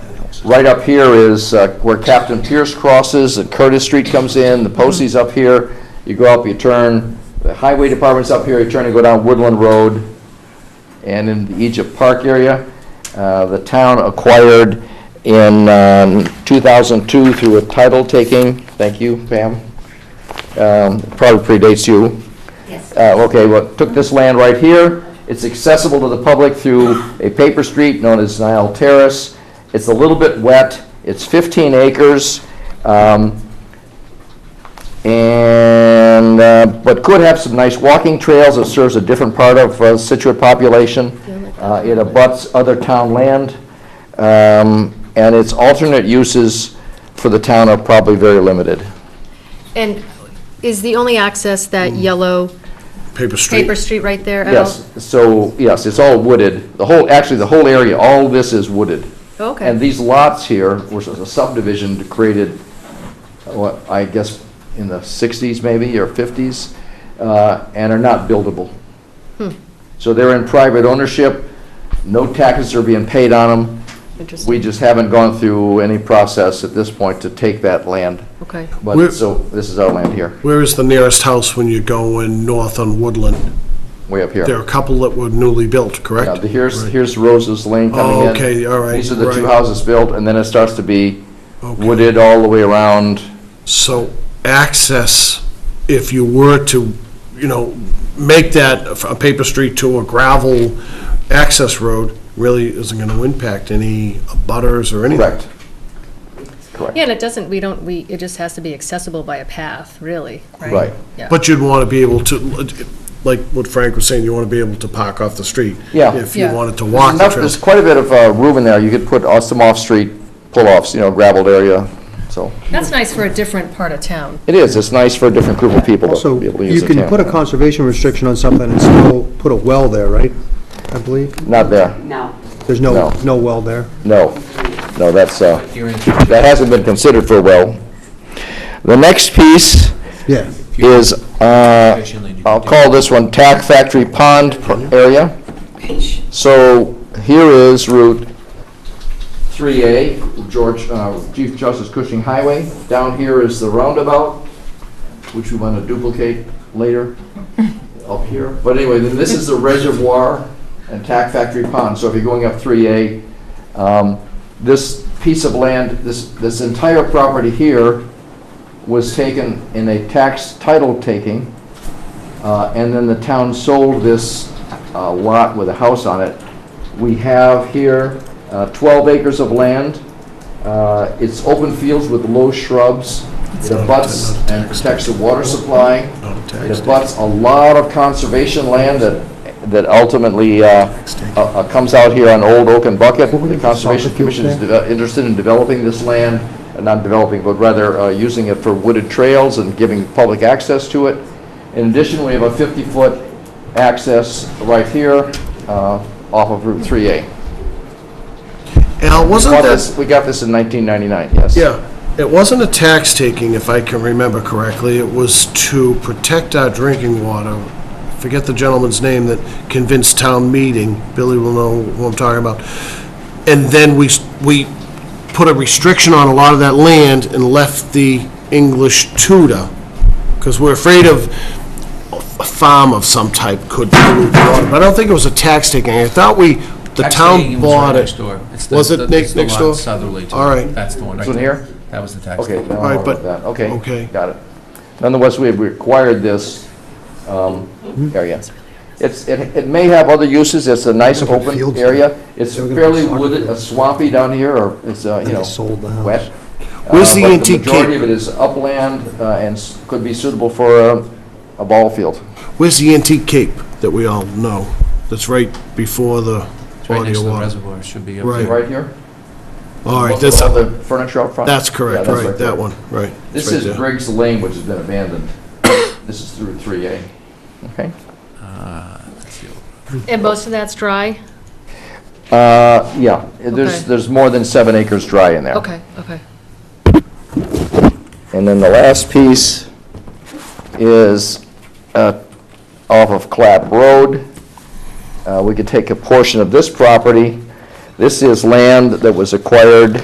Right up here is uh, where Captain Pierce crosses, and Curtis Street comes in, the Posey's up here. You go up, you turn, the Highway Department's up here, you turn and go down Woodland Road, and in the Egypt Park area. Uh, The town acquired in um, 2002 through a title taking, thank you, Pam, Um, probably predates you, Yes. uh, okay, well, took this land right here. It's accessible to the public through a paper street known as Nile Terrace. It's a little bit wet. It's 15 acres. um, And, uh, but could have some nice walking trails. It serves a different part of uh, Situate population. Uh, It abuts other town land. um, And its alternate uses for the town are probably very limited. And is the only access that yellow Paper Street. paper street right there at all? Mm. Yes, so, yes, it's all wooded. The whole, actually, the whole area, all this is wooded. Okay. And these lots here, which was a subdivision created, what, I guess, in the 60s maybe, or 50s, uh, and are not buildable. Hmm. So they're in private ownership, no taxes are being paid on them. We Interesting. just haven't gone through any process at this point to take that land. Okay. But, We're- so, this is our land here, Where is the nearest house when you're going north on Woodland? way up here. There are a couple that were newly built, Yeah, correct? the- here's, here's Rose's Lane coming Oh, in. okay, all right, These are the two right. houses built, and then it starts to be Okay. wooded all the way around. So access, if you were to, you know, make that a- a paper street to a gravel access road, really isn't going to impact any butters or anything. Correct. Yeah, Correct. and it doesn't, we don't, we, it just has to be accessible by a path, really, right? Right. Yeah. But you'd want to be able to, like what Frank was saying, you want to be able to park off the street. Yeah. If you Yeah. wanted to There's walk the enough- There's trail. quite a bit of uh, room in there. You could put uh, some off-street pull-offs, you know, gravelled area, so. That's nice for a different part of town. It is, it's nice for a different group of people to Also, be able to you use the can put a town. conservation restriction on something and still put a well there, right? I believe. Not there, No. There's no, No. no well there. no. No, that's, uh, that hasn't been considered for a well. The next piece Yeah. is, uh, I'll call this one Tack Factory Pond area. So here is Route 3A, George, uh, Chief Justice Cushing Highway. Down here is the roundabout, which we want to duplicate later up here. But anyway, then this is the reservoir and Tack Factory Pond. So if you're going up 3A, um, this piece of land, this, this entire property here was taken in a tax title taking, uh, and then the town sold this uh, lot with a house on it. We have here uh, 12 acres of land. Uh, It's open fields with low shrubs. It abuts and protects the water supply. Not a tax It abuts a lot of conservation land that, that ultimately uh, uh, uh, comes out here on Old Oak and Bucket. The Conservation Commission is deve- interested in developing this land, uh, not developing, but rather uh, using it for wooded trails and giving public access to it. In addition, we have a 50-foot access right here uh, off of Route 3A. Al, wasn't Got that? this- We got this in 1999, yes. Yeah, it wasn't a tax taking, if I can remember correctly, it was to protect our drinking water. Forget the gentleman's name that convinced town meeting, Billy will know who I'm talking about. And then we, s- we put a restriction on a lot of that land and left the English Tudor, because we're afraid of a farm of some type could pollute the water. But I don't think it was a tax taking, I thought we, the Tax town taking was right bought next it. door. It's the- Was it the- it's next the next lot door? Southerly. to All it. right. That's the one. This right one there. here? That was the tax. Okay, taking. now All I'm right, with but- that, okay. okay. Got it. Nonetheless, we have required this um, Hmm? area. It's, it it may have other uses, it's a nice Look at open fields area. It's They're gonna fairly put wooded, soccer. uh, swampy down here, or it's, uh, you They know, sold the house. wet. Where's Uh, the but antique The majority cape? of it is upland uh, and s- could be suitable for uh, a ball field. Where's the antique cape that we all know? That's right before the It's right body next of to the water. reservoir. It Should be up Right. there. Right here? All right, Most that's, of All the furniture up front? that's Yeah, correct, that's right, there. that one, right. it's This right is there. Griggs Lane, which has been abandoned. This is through 3A. Okay. And most of that's dry? Uh, yeah, there's, Okay. there's more than seven acres dry in there. Okay, okay. And then the last piece is uh, off of Clap Road. Uh, We could take a portion of this property. This is land that was acquired